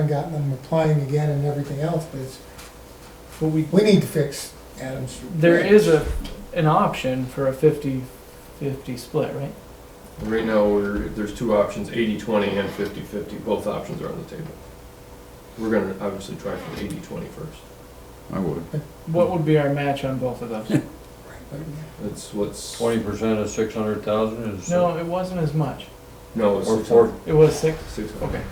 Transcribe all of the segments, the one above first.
haven't gotten them applying again and everything else, but it's, But we, we need to fix Adams. there is a, an option for a 50-50 split, right? Right now, we're, there's two options, 80-20 and 50-50. both options are on the table. We're gonna obviously try for the 80-20 first. I would. What would be our match on both of those? That's what's, Twenty percent of six hundred thousand is. No, it wasn't as much. no, it's Or six four, hundred. It was six? Six hundred. Okay.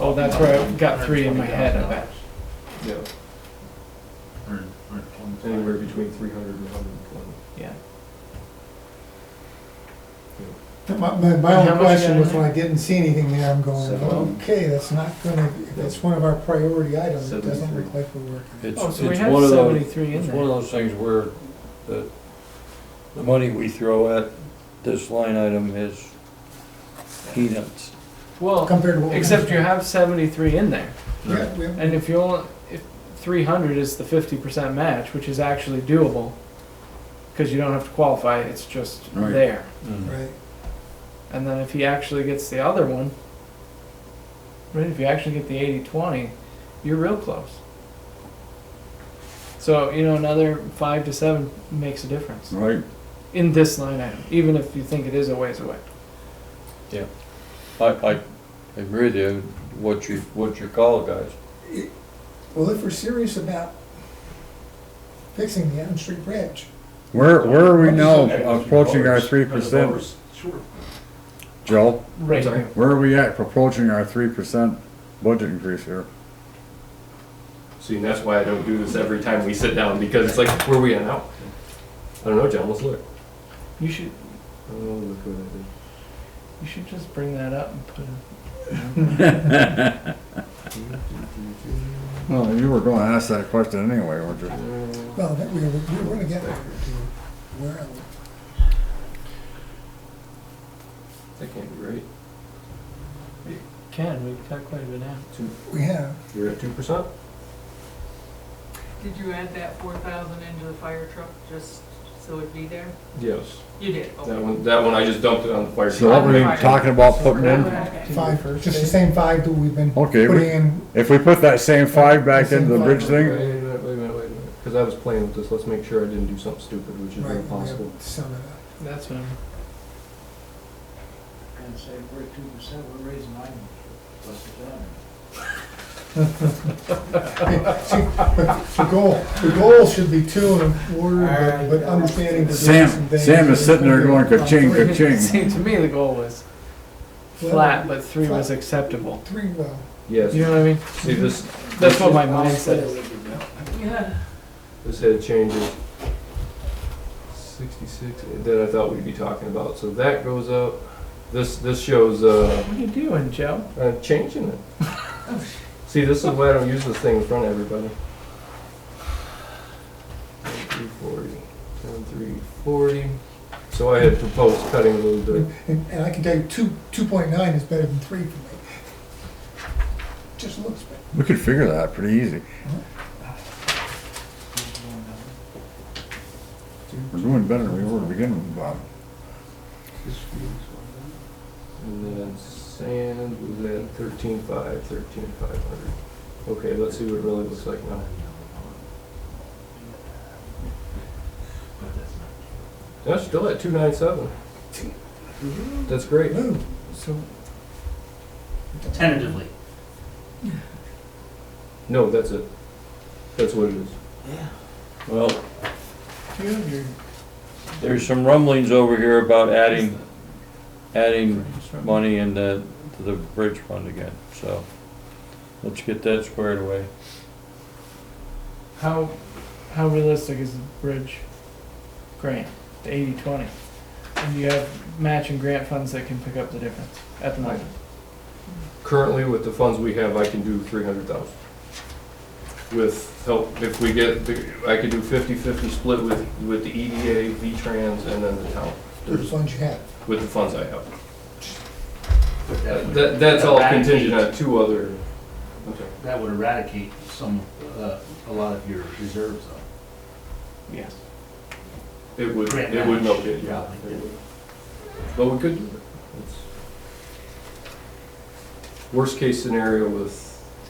Oh, that's where I got three in my head, I bet. Yeah, anywhere between three hundred and hundred and twenty. Yeah. My, my, my How only much question you was got in when I didn't see anything there, I'm going, Seven. okay, that's not gonna, that's one of our priority items, it doesn't Seventy-three. look like we're working. it's, Oh, it's so we had one of those, seventy-three in it's one of there. those things where the, the money we throw at this line item is peanuts. Well, Compared to what. we- except you have seventy-three in there, Yeah, we- and if you only, if three hundred is the fifty percent match, which is actually doable, because you don't have to qualify, it's just Right. there. Mm. Right, And then if he actually gets the other one, right, if you actually get the 80 20, you're real close. So, you know, another 5 to 7 makes a difference Right. in this line item, even if you think it is a ways away. I, I agree with you, what you, what you call it, guys. well, if we're serious about fixing the Adams Street Bridge, Where, where are we now approaching our three percent, Joe? Right. Sorry? here. Where are we at approaching our three percent budget increase here? See, and that's why I don't do this every time we sit down, because it's like, where are we at now? I don't know, John, let's look. You should Oh, look what I did. you should just bring that up and put it. Well, you were gonna ask that question anyway, weren't you? well, that we, we we're gonna get there. to Where are we? That can't be right. Can we cut quite a bit out? We have, You're at two percent? Did you add that four thousand into the fire truck just so it'd be there? Yes. You did, okay. That one, that one, I just dumped it on the fire. So what were you talking about putting in? Okay. five, just the same five that we've been Okay, we- putting in, If we put that same five back into the bridge Wait a thing, minute, wait a minute, wait a minute, because I was playing with this, let's make sure I didn't do something stupid, which is right, we have impossible. to sum it up. That's what I'm. And say, we're two percent, we're raising nine, what's it done? See, but The goal, the goal should be two and a quarter, but- but understanding. that there's some Sam, things Sam is that- sitting there going ka-ching, ka-ching. See, to me, the goal was flat, but three was Flat. acceptable. Three, well, You Yes, know what I mean? see, this, That's what my mind says. Yeah. this head changes. Sixty-six, that I thought we'd be talking about, so that goes up, this, this shows, uh, What are you doing, Joe? I'm Uh, changing it. See, this is why I don't use this thing in front of everybody. Three forty, ten, three forty. So I had proposed cutting a little bit. and, and I can tell you, two, two point nine is better than three for me. Just looks better. We could figure that pretty easy. We're doing better than we were beginning with, Bob. And then sand was at thirteen five, thirteen five hundred. Okay, let's see what it really looks like now. That's still at two nine seven. That's great. Ooh, so, Tentatively. No, that's it. That's what it is. Well, do you have your, there's some rumblings over here about adding, adding money into, to the bridge fund again, so let's get that squared away. How how realistic is the bridge grant, the 80-20? And you have matching grant funds that can pick up the difference at the moment. Currently, with the funds we have, I can do three hundred thousand. With help, if we get, the- I could do 50-50 split with, with the EDA, V-Trans, and then the town, the funds you have. with the funds I have. That, that's all contingent on two other, okay. That would eradicate some, uh, a lot of your reserves though. Yes. It would, Grant it would match. milk it, yeah. Probably. It would. But we could do it. It's- Worst case scenario with